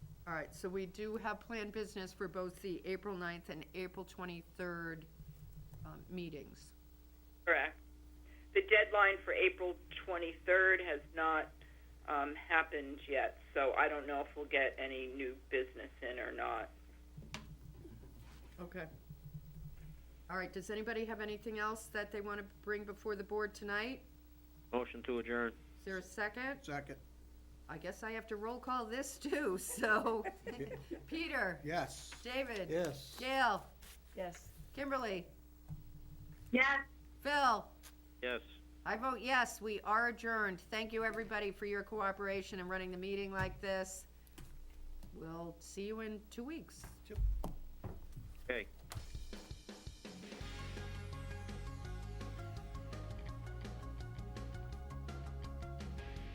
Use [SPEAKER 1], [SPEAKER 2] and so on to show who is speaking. [SPEAKER 1] All right, so we do have planned business for both the April 9th and April twenty-third, um, meetings.
[SPEAKER 2] Correct. The deadline for April 23rd has not um, happened yet, so I don't know if we'll get any new business in or not.
[SPEAKER 1] Okay. All right, does anybody have anything else that they want to bring before the board tonight?
[SPEAKER 3] Motion to adjourn.
[SPEAKER 1] Is there a second?
[SPEAKER 4] Second,
[SPEAKER 1] I guess I have to roll call this too, so, Peter?
[SPEAKER 4] yes.
[SPEAKER 1] David?
[SPEAKER 4] Yes.
[SPEAKER 1] Gail?
[SPEAKER 5] Yes.
[SPEAKER 1] Kimberly?
[SPEAKER 2] Yes.
[SPEAKER 1] Phil?
[SPEAKER 3] Yes.
[SPEAKER 1] I vote yes, we are adjourned. Thank you, everybody, for your cooperation in running the meeting like this. We'll see you in two weeks.
[SPEAKER 3] Okay.